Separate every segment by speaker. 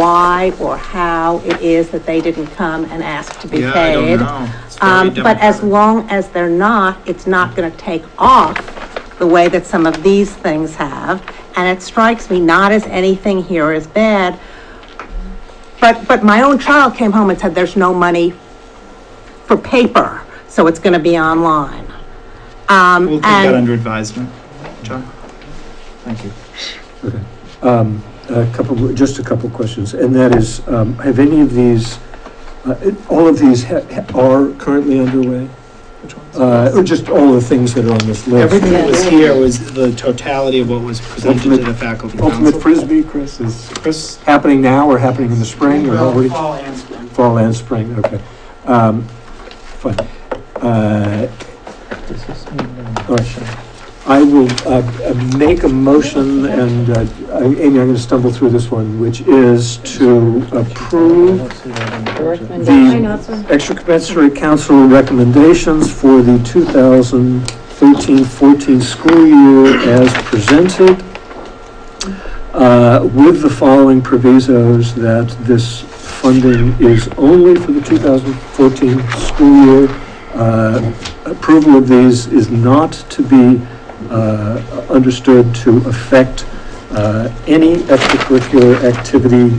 Speaker 1: why or how it is that they didn't come and ask to be
Speaker 2: Yeah, I don't
Speaker 1: paid.
Speaker 2: know. It's very
Speaker 1: Um, but as
Speaker 2: democratic.
Speaker 1: long as they're not, it's not gonna take off the way that some of these things have. And it strikes me not as anything here is bad, but, but my own child came home and said, there's no money for paper, so it's gonna be online. Um,
Speaker 2: We'll take that
Speaker 1: and,
Speaker 2: under advisement. John? Thank you.
Speaker 3: Um, A couple, just a couple questions, and that is, um, have any of these, uh, it- all of these ha- ha- are currently underway?
Speaker 2: Which ones?
Speaker 3: Uh, Or just all the things that are on this list?
Speaker 2: Everything that was here was the totality of what was presented to
Speaker 3: Ultimate-
Speaker 2: the faculty
Speaker 3: Ultimate
Speaker 2: council.
Speaker 3: frisbee, Chris, is
Speaker 2: Chris,
Speaker 3: happening now or happening in the spring or already?
Speaker 4: Fall and spring.
Speaker 3: Fall and spring, okay. Um, Fine. Uh, all right. I will uh, uh, make a motion, and uh, I- Amy, I'm going to stumble through this one, which is to approve
Speaker 5: uh,
Speaker 3: the extracurricular council recommendations for the 2013-14 school year as presented, uh, with the following provisos, that this funding is only for the 2014 school year. Uh, Approval of these is not to be uh, understood to affect uh, any extracurricular activity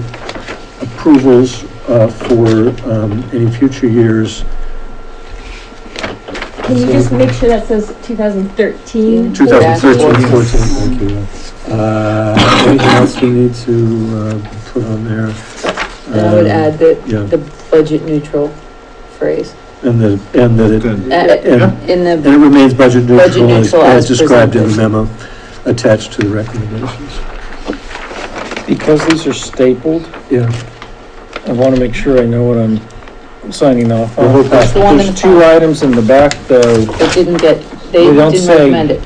Speaker 3: approvals uh, for um, any future years,
Speaker 6: Can you just make sure that says 2013?
Speaker 3: 2013, 14, thank you. Uh, Anything else we need to uh, put on there?
Speaker 7: I would
Speaker 3: Um,
Speaker 7: add the,
Speaker 3: Yeah,
Speaker 7: the budget neutral phrase,
Speaker 3: and that, and that it,
Speaker 2: good.
Speaker 7: Uh,
Speaker 3: and
Speaker 7: in
Speaker 3: And
Speaker 7: the,
Speaker 3: it remains budget neutral as-
Speaker 7: neutral
Speaker 3: as
Speaker 7: as
Speaker 3: described in the
Speaker 7: presented.
Speaker 3: memo attached to the recommendations.
Speaker 8: Because these are stapled,
Speaker 3: Yeah,
Speaker 8: I want to make sure I know what I'm signing off
Speaker 3: The
Speaker 8: on.
Speaker 3: whole
Speaker 8: There's
Speaker 3: package.
Speaker 7: The one in
Speaker 8: there's
Speaker 7: the
Speaker 8: two
Speaker 7: front.
Speaker 8: items in the back, though,
Speaker 7: it didn't get, they
Speaker 8: We don't
Speaker 7: didn't
Speaker 8: say-
Speaker 7: recommend it.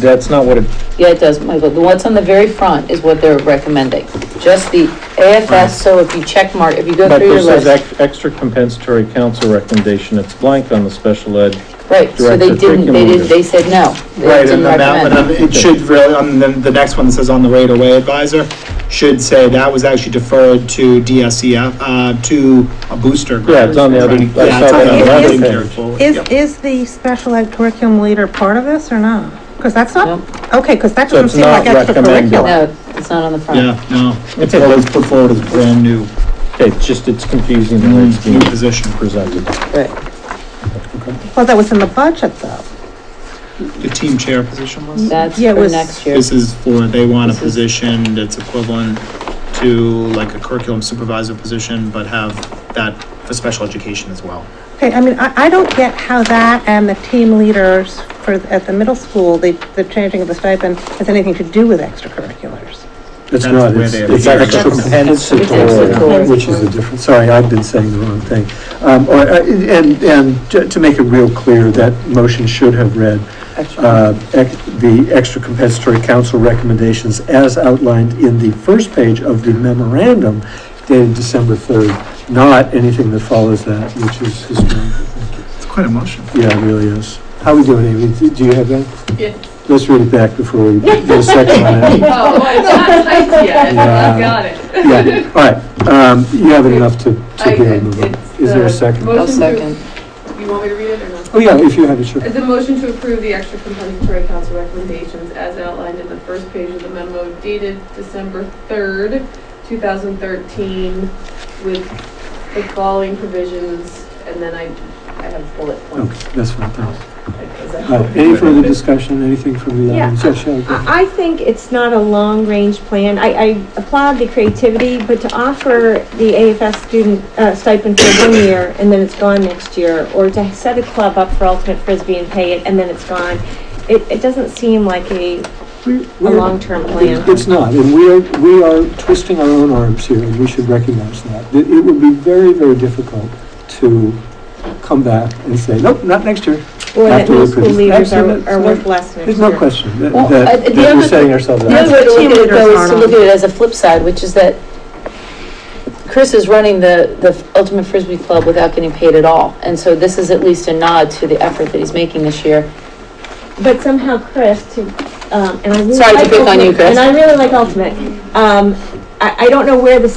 Speaker 8: that's not what it,
Speaker 7: Yeah, it does, Michael, the what's on the very front is what they're recommending, just the
Speaker 2: Right.
Speaker 7: AFS, so if you check mark, if you go
Speaker 8: but
Speaker 7: through your
Speaker 8: this says
Speaker 7: list.
Speaker 8: ex- extra compensatory council recommendation, it's blank on the special ed.
Speaker 7: Right, so they
Speaker 8: director
Speaker 7: didn't, they
Speaker 8: curriculum
Speaker 7: didn't, they said no, they
Speaker 2: Right,
Speaker 7: didn't
Speaker 2: and the map,
Speaker 7: recommend.
Speaker 2: and then it should really, and then the next one that says on the right away advisor should say that was actually deferred to DSCF, uh, to a booster group.
Speaker 8: Yeah, it's on the other- I
Speaker 2: Yeah, it's
Speaker 8: saw
Speaker 1: that on the
Speaker 2: on
Speaker 1: other
Speaker 2: the
Speaker 8: page.
Speaker 2: carried forward.
Speaker 1: is,
Speaker 2: Yep.
Speaker 1: is the special ed curriculum leader part of this or not? Because that's not, okay, because that
Speaker 8: So
Speaker 1: doesn't
Speaker 8: it's
Speaker 1: seem like
Speaker 8: not recommended.
Speaker 1: extracurricular.
Speaker 7: No, it's not on the front.
Speaker 2: Yeah, no, it's
Speaker 8: It's a-
Speaker 2: always put forward as brand new, Mm-hmm.
Speaker 8: Okay, it's just, it's confusing the way it's
Speaker 2: new
Speaker 8: being
Speaker 2: position.
Speaker 8: presented.
Speaker 7: Right,
Speaker 1: Well, that was in the budget though.
Speaker 2: The team chair position was?
Speaker 7: that's
Speaker 1: Yeah, it
Speaker 7: for
Speaker 1: was-
Speaker 7: next year.
Speaker 2: This is for, they want a
Speaker 7: This is-
Speaker 2: position that's equivalent to like a curriculum supervisor position, but have that for special education as well.
Speaker 1: Okay, I mean, I, I don't get how that and the team leaders for, at the middle school, the, the changing of the stipend has anything to do with extracurriculars.
Speaker 3: it's
Speaker 2: That's
Speaker 3: not,
Speaker 2: where
Speaker 3: it's
Speaker 2: they-
Speaker 3: it's
Speaker 2: That's-
Speaker 3: extra compensatory,
Speaker 7: compensatory.
Speaker 3: which is a different, sorry, I've been saying the wrong thing. Um, or, uh, And, and to to make it real clear, that motion should have read, uh, ex- the extra compensatory council recommendations as outlined in the first page of the memorandum dated December 3rd, not anything that follows that, which is historical.
Speaker 2: It's quite emotional.
Speaker 3: Yeah, it really is. How we doing, Amy? Do- Do you have that?
Speaker 9: Yeah.
Speaker 3: Let's read it back before we get a second on it.
Speaker 9: Oh, well, it's not typed yet. I've got it.
Speaker 3: Yeah, all right. Um, You have enough to,
Speaker 9: I-
Speaker 3: to be able to move on.
Speaker 9: it's
Speaker 3: Is there a
Speaker 9: the
Speaker 3: second?
Speaker 9: motion
Speaker 7: I'll
Speaker 9: to-
Speaker 7: second.
Speaker 9: You want me to read it or no?
Speaker 3: Oh, yeah, if you have it, sure.
Speaker 9: Is the motion to approve the extra compensatory council recommendations as outlined in the first page of the memo dated December 3rd, 2013, with the following provisions, and then I, I have bullet points.
Speaker 3: Okay, that's fine, thanks.
Speaker 9: Is that-
Speaker 3: All right, Any further discussion, anything from the
Speaker 5: Yeah.
Speaker 3: audience? Yeah, sure, go ahead.
Speaker 5: I I think it's not a long-range plan. I, I applaud the creativity, but to offer the AFS student uh, stipend for one year and then it's gone next year, or to set a club up for ultimate frisbee and pay it and then it's gone, it, it doesn't seem like a,
Speaker 3: We-
Speaker 5: a
Speaker 3: we're-
Speaker 5: long-term plan.
Speaker 3: It's not, and we are, we are twisting our own arms here, and we should recognize that. It it would be very, very difficult to come back and say, nope, not next year.
Speaker 5: Or that
Speaker 3: Absolutely.
Speaker 5: middle school leaders are,
Speaker 3: Absolutely.
Speaker 5: are worth less next year.
Speaker 3: There's no question that,
Speaker 7: Well, uh,
Speaker 3: that
Speaker 7: the
Speaker 3: that we're
Speaker 7: other-
Speaker 3: setting ourselves
Speaker 7: The
Speaker 3: up.
Speaker 7: other way to
Speaker 1: Team
Speaker 7: look at it though
Speaker 1: leaders
Speaker 7: is to
Speaker 1: aren't
Speaker 7: look
Speaker 1: on.
Speaker 7: at it as a flip side, which is that Chris is running the, the Ultimate Frisbee Club without getting paid at all. And so this is at least a nod to the effort that he's making this year.
Speaker 5: But somehow Chris, to, um, and I really
Speaker 7: Sorry to
Speaker 5: like
Speaker 7: pick on you,
Speaker 5: Ultimate- And
Speaker 7: Chris.
Speaker 5: I really like Ultimate. Um, I, I don't know where the